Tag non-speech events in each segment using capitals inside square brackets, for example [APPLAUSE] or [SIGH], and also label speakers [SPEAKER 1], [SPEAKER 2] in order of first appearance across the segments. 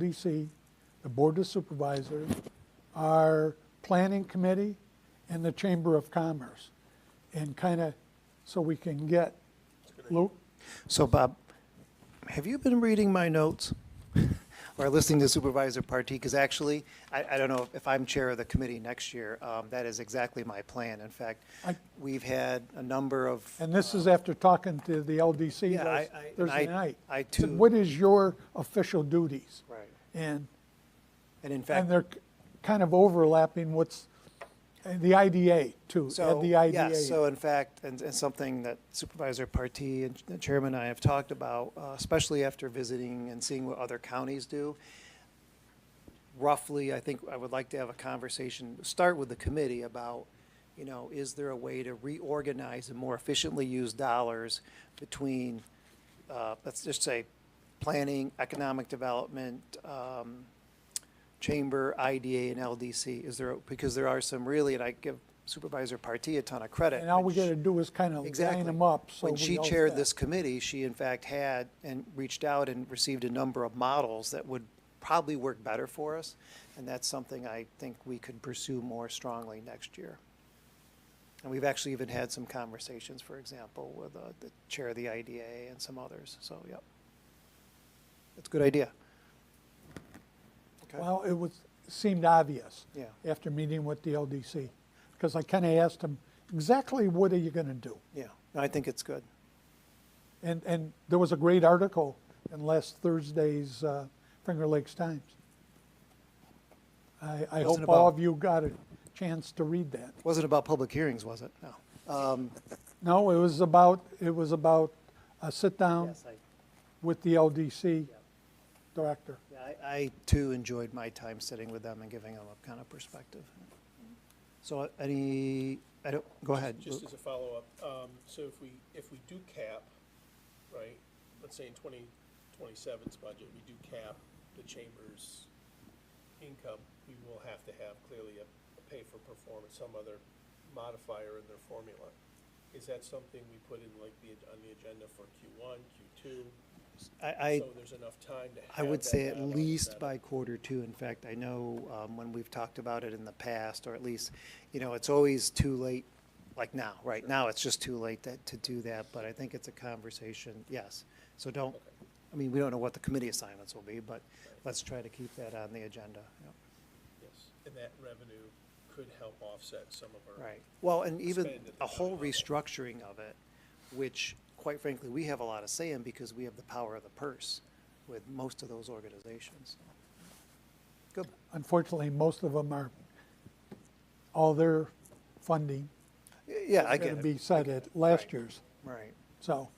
[SPEAKER 1] LDC, the Board of Supervisors, our Planning Committee, and the Chamber of Commerce, and kind of, so we can get, Luke,
[SPEAKER 2] So Bob, have you been reading my notes? [LAUGHS] Or listening to Supervisor Partee? Because actually, I, I don't know if I'm chair of the committee next year. Um, that is exactly my plan. In fact,
[SPEAKER 1] I-
[SPEAKER 2] we've had a number of.
[SPEAKER 1] and this is after talking to the LDC
[SPEAKER 2] Yeah, I-
[SPEAKER 1] last
[SPEAKER 2] I- and
[SPEAKER 1] Thursday
[SPEAKER 2] I-
[SPEAKER 1] night.
[SPEAKER 2] I
[SPEAKER 1] said,
[SPEAKER 2] too-
[SPEAKER 1] What is your official duties?
[SPEAKER 2] Right.
[SPEAKER 1] And,
[SPEAKER 2] And in fact.
[SPEAKER 1] and they're kind of overlapping what's, and the IDA too, add
[SPEAKER 2] So,
[SPEAKER 1] the IDA.
[SPEAKER 2] yes, so in fact, and, and something that Supervisor Partee and the Chairman and I have talked about, uh, especially after visiting and seeing what other counties do, roughly, I think I would like to have a conversation, start with the committee about, you know, is there a way to reorganize and more efficiently use dollars between, uh, let's just say, planning, economic development, um, Chamber, IDA, and LDC? Is there, because there are some really, and I give Supervisor Partee a ton of credit.
[SPEAKER 1] And all we
[SPEAKER 2] which-
[SPEAKER 1] gotta do is kind of
[SPEAKER 2] Exactly.
[SPEAKER 1] line them up, so we
[SPEAKER 2] When she
[SPEAKER 1] know
[SPEAKER 2] chaired
[SPEAKER 1] that.
[SPEAKER 2] this committee, she in fact had and reached out and received a number of models that would probably work better for us. And that's something I think we could pursue more strongly next year. And we've actually even had some conversations, for example, with uh, the chair of the IDA and some others. So, yep. That's a good idea. Okay.
[SPEAKER 1] Well, it was, seemed obvious.
[SPEAKER 2] Yeah.
[SPEAKER 1] After meeting with the LDC, because I kind of asked them, exactly what are you going to do?
[SPEAKER 2] Yeah, No, I think it's good.
[SPEAKER 1] And, and there was a great article in last Thursday's uh, Finger Lakes Times. I, I
[SPEAKER 2] Wasn't
[SPEAKER 1] hope all
[SPEAKER 2] about-
[SPEAKER 1] of you got a chance to read that.
[SPEAKER 2] Wasn't about public hearings, was it? No.
[SPEAKER 1] No, it was about, it was about a sit-down with the LDC director.
[SPEAKER 2] Yeah, I, I too enjoyed my time sitting with them and giving them a kind of perspective. So uh, any, I don't, go ahead.
[SPEAKER 3] Just as a follow-up, um, so if we, if we do cap, right, let's say in twenty twenty-seven's budget, we do cap the chamber's income, we will have to have clearly a, a pay for performance, some other modifier in their formula. Is that something we put in like the, on the agenda for Q one, Q two?
[SPEAKER 2] I, I,
[SPEAKER 3] So there's enough time to
[SPEAKER 2] I
[SPEAKER 3] have
[SPEAKER 2] would
[SPEAKER 3] that
[SPEAKER 2] say at
[SPEAKER 3] dialogue, is
[SPEAKER 2] least
[SPEAKER 3] that-
[SPEAKER 2] by quarter two. In fact, I know, um, when we've talked about it in the past, or at least, you know, it's always too late, like now, right now, it's just too late that, to do that, but I think it's a conversation, yes. So don't, I mean, we don't know what the committee assignments will be, but let's try to keep that on the agenda, yeah.
[SPEAKER 3] Yes, and that revenue could help offset some of our.
[SPEAKER 2] Right. Well, and even
[SPEAKER 3] expand at
[SPEAKER 2] a
[SPEAKER 3] the
[SPEAKER 2] whole
[SPEAKER 3] county level.
[SPEAKER 2] restructuring of it, which quite frankly, we have a lot of say in because we have the power of the purse with most of those organizations. Good.
[SPEAKER 1] Unfortunately, most of them are, all their funding
[SPEAKER 2] Y- Yeah, I
[SPEAKER 1] is
[SPEAKER 2] get
[SPEAKER 1] going to
[SPEAKER 2] it.
[SPEAKER 1] be set at last year's.
[SPEAKER 2] Right.
[SPEAKER 1] So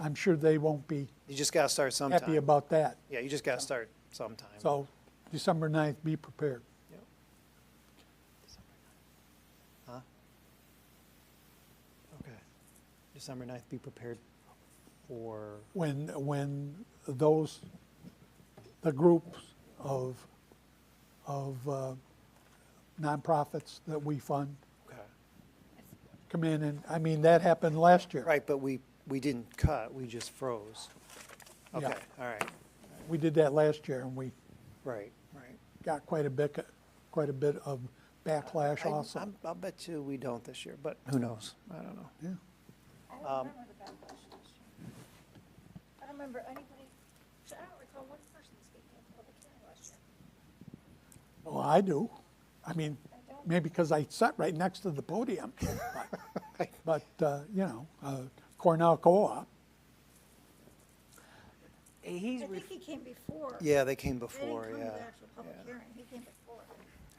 [SPEAKER 1] I'm sure they won't be
[SPEAKER 2] You just gotta start sometime.
[SPEAKER 1] happy about that.
[SPEAKER 2] Yeah, you just gotta start sometime.
[SPEAKER 1] So December 9th, be prepared.
[SPEAKER 2] Yep. Huh? Okay. December ninth, be prepared for,
[SPEAKER 1] When, when those, the groups of, of uh, nonprofits that we fund
[SPEAKER 2] okay.
[SPEAKER 1] come in and, I mean, that happened last year.
[SPEAKER 2] Right, but we, we didn't cut, we just froze.
[SPEAKER 1] Yeah.
[SPEAKER 2] Okay, all right,
[SPEAKER 1] We did that last year and we
[SPEAKER 2] right, right.
[SPEAKER 1] got quite a bit, quite a bit of backlash
[SPEAKER 2] I-
[SPEAKER 1] also.
[SPEAKER 2] I'm- I'll bet you we don't this year, but who knows? I don't know.
[SPEAKER 1] Yeah.
[SPEAKER 4] I
[SPEAKER 2] Um,
[SPEAKER 4] don't remember the backlash this year. I don't remember anybody, so I don't recall one person speaking in public hearing last year.
[SPEAKER 1] Well, I do. I mean, maybe because I sat right next to the
[SPEAKER 2] [LAUGHS]
[SPEAKER 1] podium. But- But, uh, you know, uh, Cornell Co-op,
[SPEAKER 5] He's,
[SPEAKER 4] I
[SPEAKER 5] ref-
[SPEAKER 4] think he came before.
[SPEAKER 2] Yeah, they came
[SPEAKER 4] They didn't
[SPEAKER 2] before,
[SPEAKER 4] come to the
[SPEAKER 2] yeah.
[SPEAKER 4] actual public
[SPEAKER 2] yeah.
[SPEAKER 4] hearing, he came before.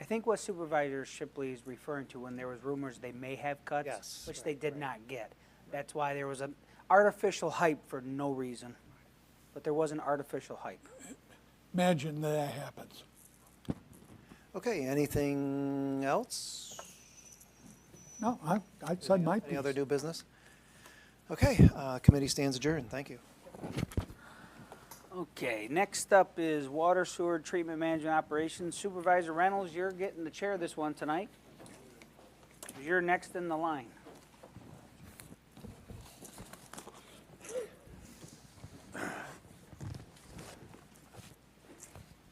[SPEAKER 5] I think what Supervisor Shipley is referring to, when there was rumors they may have cuts.
[SPEAKER 2] Yes,
[SPEAKER 5] Which
[SPEAKER 2] right,
[SPEAKER 5] they did not get. That's why there was an artificial hype for no reason. But there was an artificial hype.
[SPEAKER 1] imagine that happens.
[SPEAKER 2] Okay, anything else?
[SPEAKER 1] No, I, I said my
[SPEAKER 2] Any
[SPEAKER 1] piece.
[SPEAKER 2] other new business? Okay, uh, committee stands adjourned, thank you.
[SPEAKER 5] Okay, next up is Water Sewer Treatment Management Operations Supervisor Reynolds, you're getting the chair this one tonight. You're next in the line.